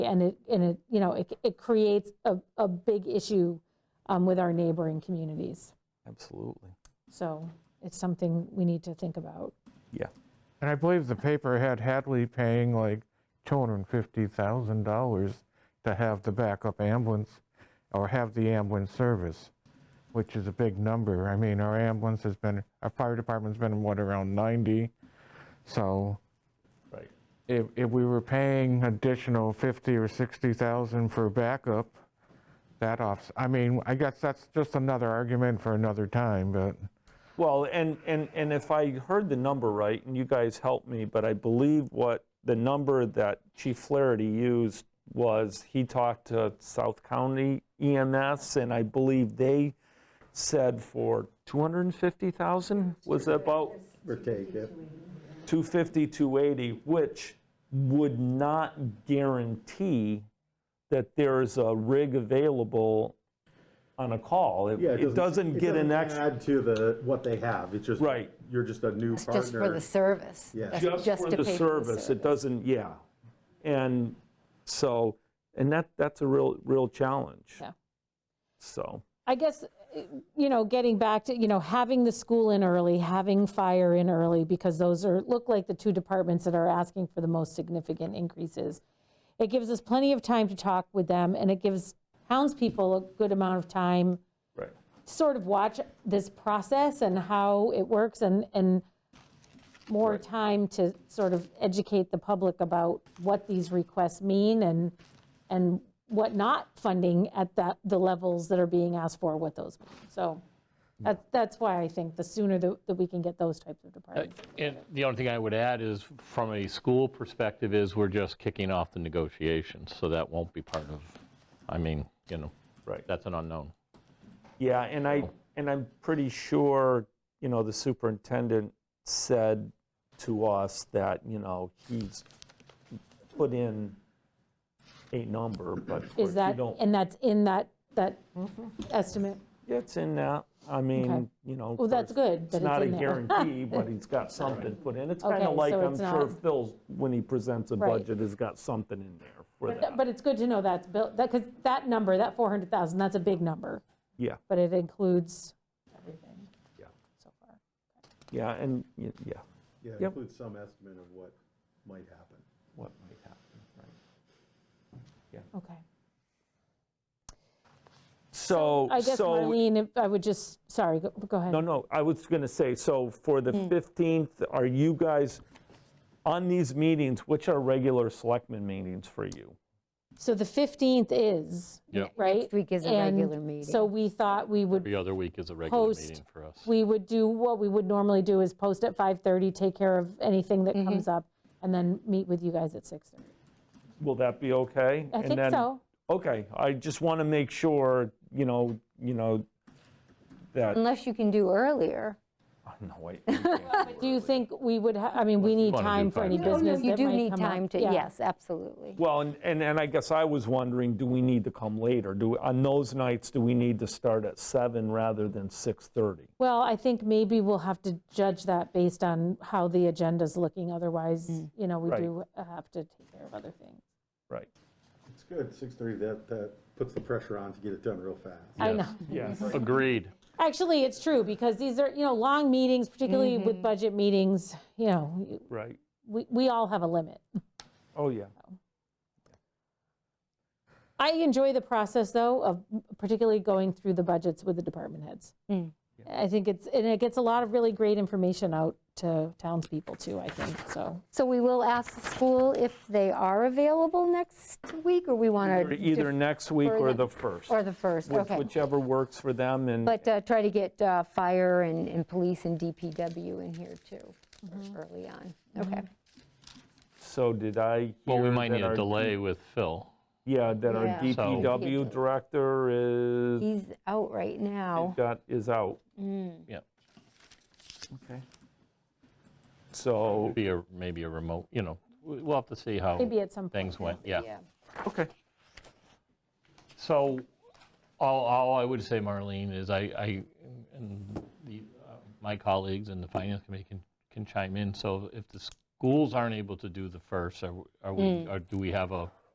And it, and it, you know, it, it creates a, a big issue um, with our neighboring communities. Absolutely. So it's something we need to think about. Yeah. And I believe the paper had Hadley paying like $250,000 to have the backup ambulance or have the ambulance service, which is a big number. I mean, our ambulance has been, our fire department's been, what, around 90? So Right. if, if we were paying additional 50 or 60,000 for backup, that offs, I mean, I guess that's just another argument for another time, but Well, and, and, and if I heard the number right, and you guys helped me, but I believe what the number that Chief Flaherty used was he talked to South County EMS, and I believe they said for 250,000 was about Or take it. 250, 280, which would not guarantee that there is a rig available on a call. It- Yeah, It doesn't get an doesn't extra. Add to the, what they have, it's just. Right. You're just a new partner. Just for the service. Yeah. That's just for to the pay for service, it doesn't, yeah. And so, and that, that's a real, real challenge. Yeah. So, I guess, eh, you know, getting back to, you know, having the school in early, having fire in early, because those are, look like the two departments that are asking for the most significant increases. It gives us plenty of time to talk with them, and it gives townspeople a good amount of time right, to sort of watch this process and how it works, and, and more time to sort of educate the public about what these requests mean and, and what not funding at that, the levels that are being asked for, what those mean. So that, that's why I think the sooner that, that we can get those types of departments. And the only thing I would add is, from a school perspective, is we're just kicking off the negotiations, so that won't be part of, I mean, you know, right. that's an unknown. Yeah, and I, and I'm pretty sure, you know, the superintendent said to us that, you know, he's put in a number, but of course Is you that, don't- Mm-hmm. and that's in that, that estimate? It's in that, I Okay. mean, you know. of Well, that's course, good that It's it's not a in there. guarantee, but he's got something put in. It's kind Okay, of like, so I'm it's sure not- Phil's, when he presents a Right. budget, has got something in there for But that. but it's good to know that's built, that, because that number, that 400,000, that's a big number, Yeah, but it includes everything Yeah. so far. yeah, and, y- yeah, Yeah, Yep. include some estimate of what might happen. what might happen, right? Okay. So, I guess, so Marlene, if I would just, sorry, go go ahead. No, no, I was going to say, so for the Hmm. 15th, are you guys, on these meetings, which are regular selectmen meetings for you? So the 15th is, Yeah. right? Next week is a And regular meeting. So we thought we would Every other week is a regular post, meeting for us. we would do, what we would normally do is post at 5:30, take care of anything Mm-hmm. that comes up, and then meet with you guys at 6:30. Will that be okay? I And think then- so. Okay, I just want to make sure, you know, you know, that, Unless you can do earlier. no, I- we can't Do you think we would, ha- I mean, we need wanna do time for any 5:30. No, no, business Oh, You that do might need come up. time to, Yeah. yes, absolutely. Well, and, and and I guess I was wondering, do we need to come later? Do, we- on those nights, do we need to start at seven rather than 6:30? Well, I think maybe we'll have to judge that based on how the agenda's looking. Otherwise, you know, we Right. do have to take care of other things. Right. It's good, 6:30, that, that puts the pressure on to get it done real fast. I know. Mm-hmm. Yes. Agreed. Actually, it's true, because these are, you know, long meetings, particularly with budget meetings, you know, Right. we, we all have a limit. Oh, yeah. I enjoy the process, though, of particularly going through the budgets with the department heads. I think it's, and it gets a lot of really great information out to townspeople, too, I think, so. So we will ask the school if they are available next week, or we want to. Either next week or further- the first. Or the first, Which- okay. Whichever works for them and. But uh, try to get uh, fire and, and police and DPW in here too, early on. Okay. So did I Well, we hear might that need a our- delay with Phil. Yeah, that our Yeah. So- DPW director is, He's out right now. got, is out. Yeah, Okay. So, be a, maybe a remote, you know, we- we'll have to see how Maybe at some point. things went, yeah. okay, So all, all I would say, Marlene, is I, I, and the, uh, my colleagues and the finance committee can, can chime in. So if the schools aren't able to do the first, are, are we, or do we have a